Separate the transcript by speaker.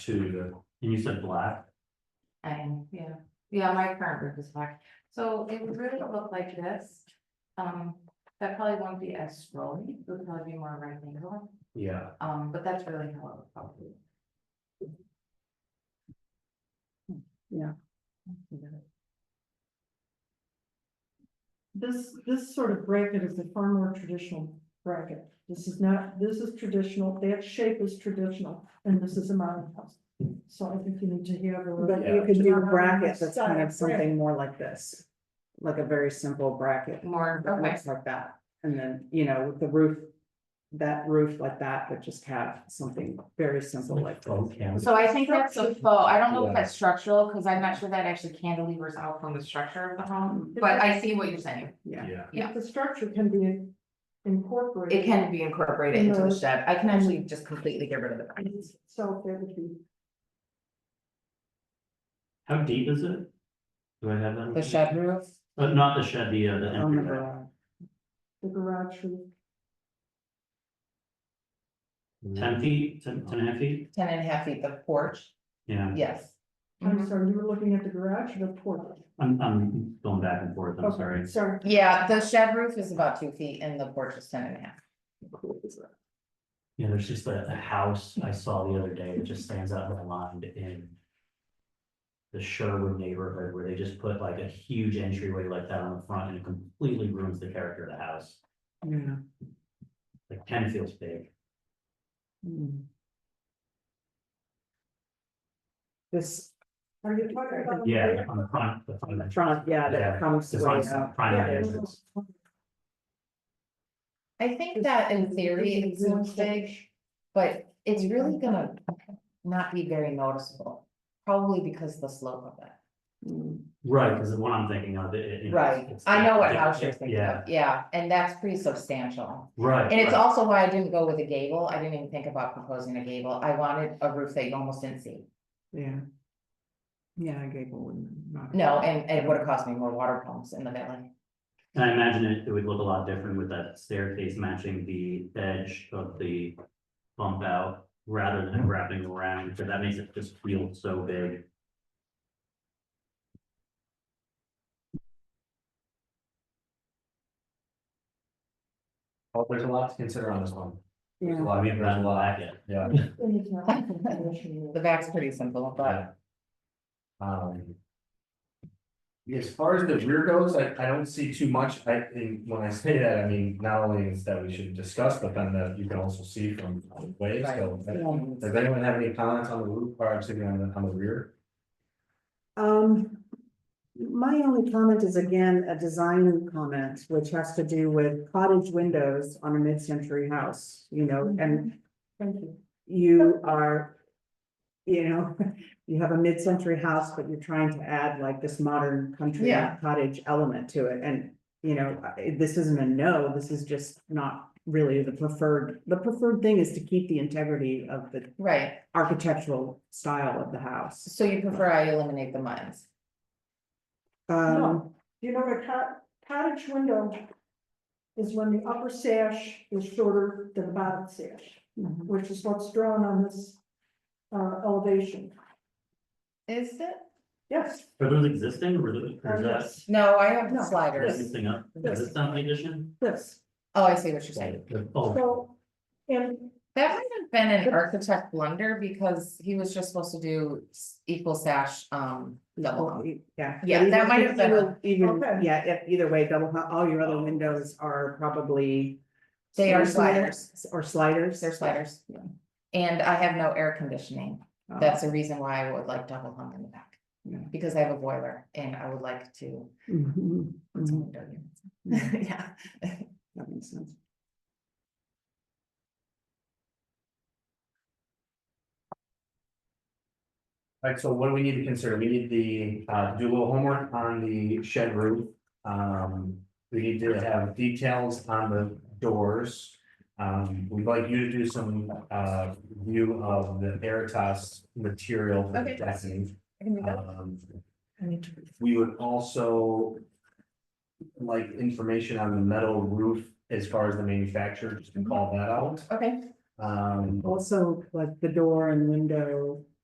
Speaker 1: to, and you said black,
Speaker 2: I am, yeah, yeah, my current roof is black, so it would really look like this. Um, that probably won't be as scrolly, it would probably be more rectangular,
Speaker 1: yeah,
Speaker 2: um, but that's really how it would probably.
Speaker 3: Yeah.
Speaker 2: Yeah.
Speaker 3: This, this sort of bracket is a far more traditional bracket. This is not, this is traditional, that shape is traditional, and this is a modern house. So I think you need to hear.
Speaker 4: But you could do a bracket that's kind of something more like this, like a very simple bracket,
Speaker 2: More,
Speaker 4: that
Speaker 2: okay,
Speaker 4: looks like that. And then, you know, with the roof, that roof like that, but just have something very simple
Speaker 1: like
Speaker 4: like this.
Speaker 1: twelve cans.
Speaker 2: so I think that's a faux, I don't know
Speaker 1: Yeah.
Speaker 2: if that's structural, cause I'm not sure that actually cantilevers out from the structure of the
Speaker 3: um,
Speaker 2: home, but I see what you're saying.
Speaker 4: Yeah,
Speaker 1: Yeah,
Speaker 2: yeah.
Speaker 3: If the structure can be incorporated.
Speaker 2: It can be incorporated into the shed, I can actually just completely get rid of the back.
Speaker 3: So that would be,
Speaker 1: how deep is it? Do I have that?
Speaker 5: The shed roof,
Speaker 1: Uh, not the shed, the, uh, the
Speaker 4: on the
Speaker 1: entry,
Speaker 4: garage.
Speaker 3: the garage roof,
Speaker 1: ten feet, ten, ten and a half feet,
Speaker 5: ten and a half feet, the porch,
Speaker 1: yeah,
Speaker 5: yes.
Speaker 2: Mm-hmm.
Speaker 3: I'm sorry, you were looking at the garage or the porch?
Speaker 1: I'm, I'm going back and forth, I'm
Speaker 3: Okay,
Speaker 1: sorry.
Speaker 3: Sorry.
Speaker 5: Yeah, the shed roof is about two feet and the porch is ten and a half.
Speaker 1: Yeah, there's just a, a house I saw the other day that just stands out in my mind in. The Sherwood neighborhood where they just put like a huge entryway like that on the front and it completely ruins the character of the house.
Speaker 4: Yeah.
Speaker 1: Like ten feels big,
Speaker 4: Mm. This
Speaker 3: Are you talking about?
Speaker 1: yeah, on the front, the front.
Speaker 4: front, yeah,
Speaker 1: Yeah,
Speaker 4: that comes
Speaker 1: The
Speaker 4: way
Speaker 1: front,
Speaker 4: up.
Speaker 1: primary
Speaker 4: Yeah.
Speaker 1: entrance,
Speaker 5: I think that in theory it seems big, but it's really gonna not be very noticeable. Probably because of the slope of it.
Speaker 1: right, because the one I'm thinking of, it- it. you know, it's-
Speaker 5: Right,
Speaker 1: it's-
Speaker 5: I know what
Speaker 1: it-
Speaker 5: house you're
Speaker 1: it-
Speaker 5: thinking
Speaker 1: Yeah,
Speaker 5: of, yeah, and that's pretty substantial.
Speaker 1: right.
Speaker 5: And it's
Speaker 1: right.
Speaker 5: also why I didn't go with a gable, I didn't even think about proposing a gable, I wanted a roof that you almost didn't see.
Speaker 4: Yeah. Yeah, gable wouldn't. not-
Speaker 5: No, and and it would have cost me more water pumps in the valley.
Speaker 1: And I imagine it, it would look a lot different with that staircase matching the edge of the bump out rather
Speaker 6: Mm-hmm.
Speaker 1: than wrapping around, because that makes it just feel so big.
Speaker 6: Well, there's a lot to consider on this one. There's a
Speaker 4: Yeah,
Speaker 6: lot, I mean, there's a lot, yeah,
Speaker 3: And it's not a condition.
Speaker 5: The back's pretty simple, but
Speaker 6: yeah. Um. As far as the rear goes, I, I don't see too much, I, and when I say that, I mean, not only is that we should discuss, but then that you can also see from the waves, so. Does anyone have any comments on the roof, or I'm sitting on the, on the rear?
Speaker 4: Um, my only comment is again, a design comment, which has to do with cottage windows on a mid-century house, you know, and
Speaker 3: Thank you.
Speaker 4: you are, you know, you have a mid-century house, but you're trying to add like this modern country
Speaker 5: Yeah.
Speaker 4: cottage element to it, and, you know, I- this isn't a no, this is just not really the preferred, the preferred thing is to keep the integrity of the
Speaker 5: right,
Speaker 4: architectural style of the house.
Speaker 5: so you prefer I eliminate the mines?
Speaker 4: Um,
Speaker 3: You know, the cot- cottage window is when the upper sash is shorter than the bottom sash,
Speaker 4: Mhm.
Speaker 3: which is what's drawn on this uh, elevation.
Speaker 5: Is it?
Speaker 3: Yes.
Speaker 1: Are those existing or is that- is that
Speaker 5: No, I have
Speaker 3: No.
Speaker 5: the sliders.
Speaker 1: existing up? Is this not the addition?
Speaker 3: This,
Speaker 5: Oh, I see what you're saying.
Speaker 1: Oh,
Speaker 3: so, and
Speaker 5: That might have been an architect blunder because he was just supposed to do s- equal sash, um, double. hung.
Speaker 4: Yeah.
Speaker 5: Yeah,
Speaker 4: but
Speaker 5: that
Speaker 4: even-
Speaker 5: might have been a-
Speaker 4: Even,
Speaker 3: Okay.
Speaker 4: yeah, if either way, double, hung- all your other windows are probably.
Speaker 5: They are
Speaker 4: sliders Or sliders.
Speaker 5: They're sliders. And I have no air conditioning.
Speaker 4: Oh,
Speaker 5: That's the reason why I would like double hung in the back.
Speaker 4: Yeah.
Speaker 5: Because I have a boiler and I would like to.
Speaker 4: mhm,
Speaker 5: put some
Speaker 4: mhm,
Speaker 5: window units.
Speaker 4: Mm-hmm.
Speaker 5: Yeah.
Speaker 4: That makes sense.
Speaker 6: Alright, so what do we need to consider? We need the, uh, do a little homework on the shed roof. Um, we need to have details on the doors. Um, we'd like you to do some, uh, view of the Veritas material for the
Speaker 5: Okay.
Speaker 6: decking.
Speaker 5: I can do that.
Speaker 6: Um,
Speaker 5: I need to-
Speaker 6: we would also like information on the metal roof as far as the
Speaker 5: Mm-hmm.
Speaker 6: manufacturer, just to call that out.
Speaker 5: Okay,
Speaker 6: Um,
Speaker 4: Also, like the door and window